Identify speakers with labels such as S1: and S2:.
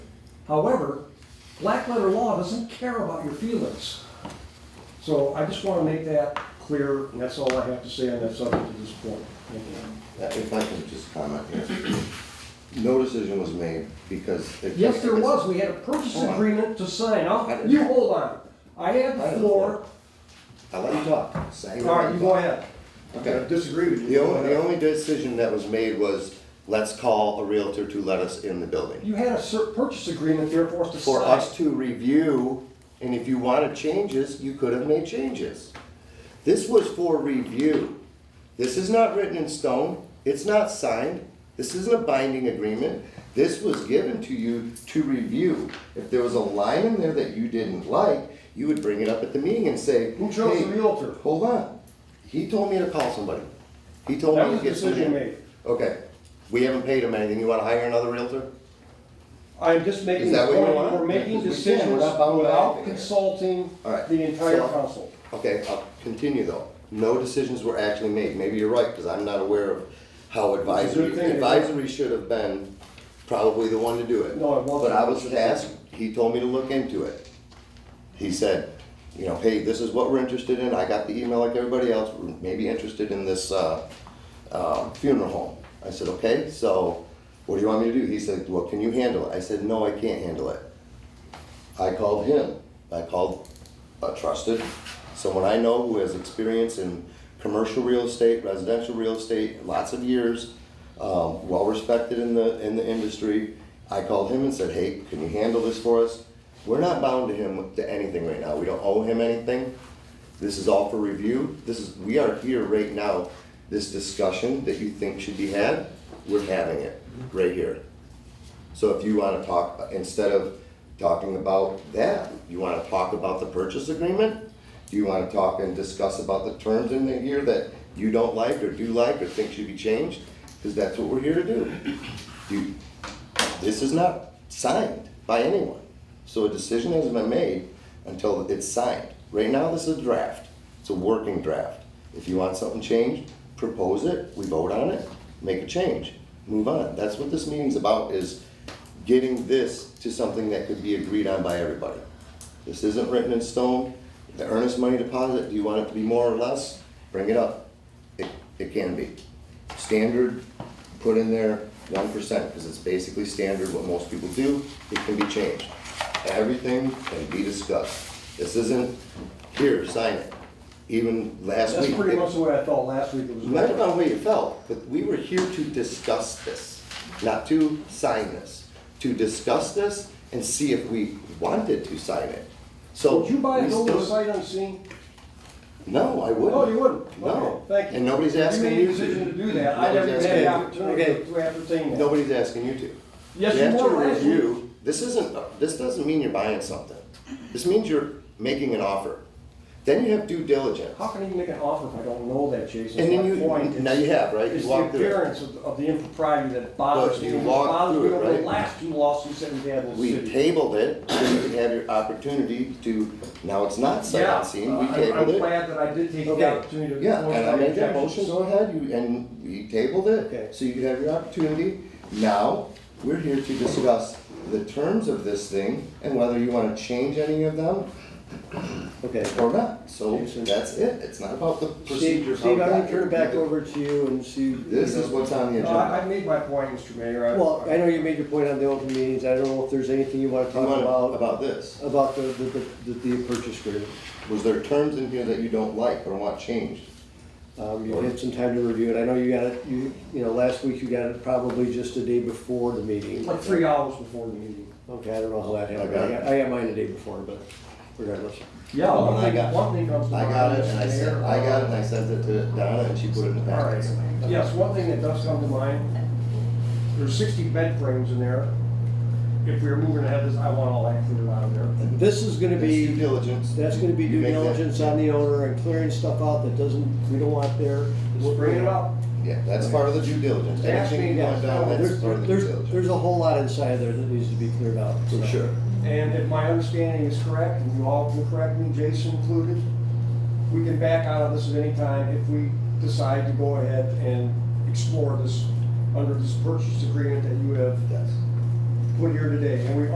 S1: However, black letter law doesn't care about your feelings. So I just want to make that clear, and that's all I have to say on that subject at this point. Thank you.
S2: Uh, If I can just comment here. No decision was made because. it-
S1: Yes, there was, we had a purchase
S2: Hold on.
S1: agreement to sign.
S2: I
S1: Now,
S2: didn't-
S1: you hold on. I had
S2: I
S1: the
S2: didn't-
S1: floor.
S2: I let you talk. Say
S1: All
S2: what
S1: right, you go ahead.
S2: Okay.
S1: I disagree with you.
S2: The only, the
S1: Go ahead.
S2: only decision that was made was, let's call a Realtor to let us in the building.
S1: You had a cer- purchase agreement there for us to sign.
S2: For us to review, and if you wanted changes, you could have made changes. This was for review. This is not written in stone, it's not signed, this isn't a binding agreement. This was given to you to review. If there was a line in there that you didn't like, you would bring it up at the meeting and say,
S1: Who chose the
S2: "Hey,
S1: Realtor?"
S2: Hold on, he told me to call somebody. He told
S1: That
S2: me
S1: was
S2: to
S1: the
S2: get somebody.
S1: decision made.
S2: Okay, we haven't paid him anything, you wanna hire another Realtor?
S1: I'm just making
S2: Is
S1: the
S2: that what you
S1: point,
S2: want?
S1: we're making
S2: Because we can't,
S1: decisions
S2: we're not bound by
S1: without
S2: anything here.
S1: consulting
S2: All right,
S1: the entire
S2: so-
S1: council.
S2: Okay, I'll continue though. No decisions were actually made. Maybe you're right, because I'm not aware of how advisory,
S1: good thing.
S2: advisory should have been probably the one to do it.
S1: No, it wasn't.
S2: But I was tasked, he told me to look into it. He said, you know, hey, this is what we're interested in. I got the email like everybody else, We're maybe interested in this, uh, um, funeral home. I said, okay, so what do you want me to do? He said, well, can you handle it? I said, no, I can't handle it. I called him. I called a trusted, someone I know who has experience in commercial real estate, residential real estate, lots of years, um, well respected in the in the industry. I called him and said, "Hey, can you handle this for us? We're not bound to him to anything right now. We don't owe him anything. This is all for review. This is we are here right now. This discussion that you think should be had, we're having it right here. So if you wanna talk, instead of talking about that, you wanna talk about the purchase agreement? Do you wanna talk and discuss about the terms in here that you don't like or do like or think should be changed? Cause that's what we're here to do. You, this is not signed by anyone. So a decision hasn't been made until it's signed. Right now, this is a draft. It's a working draft. If you want something changed, propose it, we vote on it, make a change, move on. That's what this meeting's about, is getting this to something that could be agreed on by everybody. This isn't written in stone. The earnest money deposit, do you want it to be more or less? Bring it up. It, it can be. Standard, put in there one percent, because it's basically standard what most people do, it can be changed. Everything can be discussed. This isn't, here, sign it. Even last
S1: That's
S2: week.
S1: pretty
S2: it-
S1: much the way I felt last week. It was.
S2: Might have been the way you felt, but we were here to discuss this, not to sign this. To discuss this and see if we wanted to sign it. So.
S1: Would you buy a
S2: we
S1: building
S2: still-
S1: sight unseen?
S2: No, I wouldn't.
S1: No, Oh, you wouldn't.
S2: No.
S1: Okay, Thank you.
S2: And nobody's asking
S1: You made a
S2: you to.
S1: decision to do that. I never even had
S2: Nobody's
S1: the
S2: asking you to.
S1: opportunity to to entertain that.
S2: Nobody's asking you to.
S1: Yes,
S2: You
S1: you
S2: have to
S1: were last week.
S2: review, this isn't, this doesn't mean you're buying something. This means you're making an offer. Then you have due diligence.
S1: How can you make an offer if I don't know that, Jason?
S2: And then
S1: That's my
S2: you-
S1: point.
S2: now
S1: It's-
S2: you have, right? You
S1: It's the
S2: walked through it.
S1: appearance of, of the impropriety that bothers
S2: Look,
S1: me.
S2: you
S1: It
S2: walked
S1: bothers
S2: through
S1: me
S2: it,
S1: over The
S2: right?
S1: last two lawsuits that we've had in the
S2: We
S1: city.
S2: tabled it, so you could have your opportunity to, now it's not sight
S1: Yeah,
S2: unseen, we
S1: uh, I'm-
S2: tabled
S1: I'm
S2: it.
S1: glad that I did take
S2: Okay.
S1: the opportunity to.
S2: Yeah, and I made that motion,
S1: objections.
S2: go ahead, you, and we tabled
S1: Okay.
S2: it, so you could have your opportunity. Now, we're here to discuss the terms of this thing and whether you wanna change any of them
S3: Okay.
S2: or not. So
S3: Jason.
S2: that's it, it's not about the procedure. how
S3: Steve, Steve, I'm
S2: we
S3: gonna
S2: got
S3: turn it
S2: here.
S3: back over to you and see.
S2: This is what's on the
S1: No, uh, I,
S2: agenda.
S1: I made my point, Mr. Mayor. I-
S3: Well, I know you made your point on the open meetings, I don't know if there's anything you wanna
S2: You
S3: talk
S2: want
S3: about,
S2: about this,
S3: about the, the, the, the purchase agreement.
S2: was there terms in here that you don't like or want changed?
S3: Um, you had some time to review it, I know you got it, you, you know, last week you got it probably just the day before the meeting.
S1: Like three hours before the meeting.
S3: Okay, I don't know how that happened,
S2: I
S3: I
S2: got it.
S3: got, I got mine the day before, but regardless.
S1: Yeah,
S2: Well,
S1: one
S2: when I
S1: thing,
S2: got-
S1: one thing comes to
S2: I
S1: mind.
S2: got it, and I
S1: Mr.
S2: sent,
S1: Mayor,
S2: I got it,
S1: uh,
S2: and I sent it to Donna, and she put it in the
S1: All right,
S2: packet.
S1: yes, one thing that does come to mind, there's sixty bed frames in there. If we were moving ahead, this- I want all that cleared out of there.
S3: This is gonna
S2: That's due
S3: be,
S2: diligence.
S3: that's gonna be
S2: You
S3: due
S2: make that-
S3: diligence on the owner and clearing stuff out that doesn't, we don't want there.
S1: Just bring it up.
S2: Yeah, that's part of the due diligence.
S1: They asked
S2: Anything
S1: me
S2: you want
S1: that.
S2: done, that's
S3: There's,
S2: part of the due
S3: there's, there's
S2: diligence.
S3: a whole lot inside there that needs to be cleared out.
S2: For
S3: so.
S2: sure.
S1: And if my understanding is correct, and you all can correct me, Jason included, we can back out of this at any time if we decide to go ahead and explore this under this purchase agreement that you have
S2: Yes.
S1: put here today. And we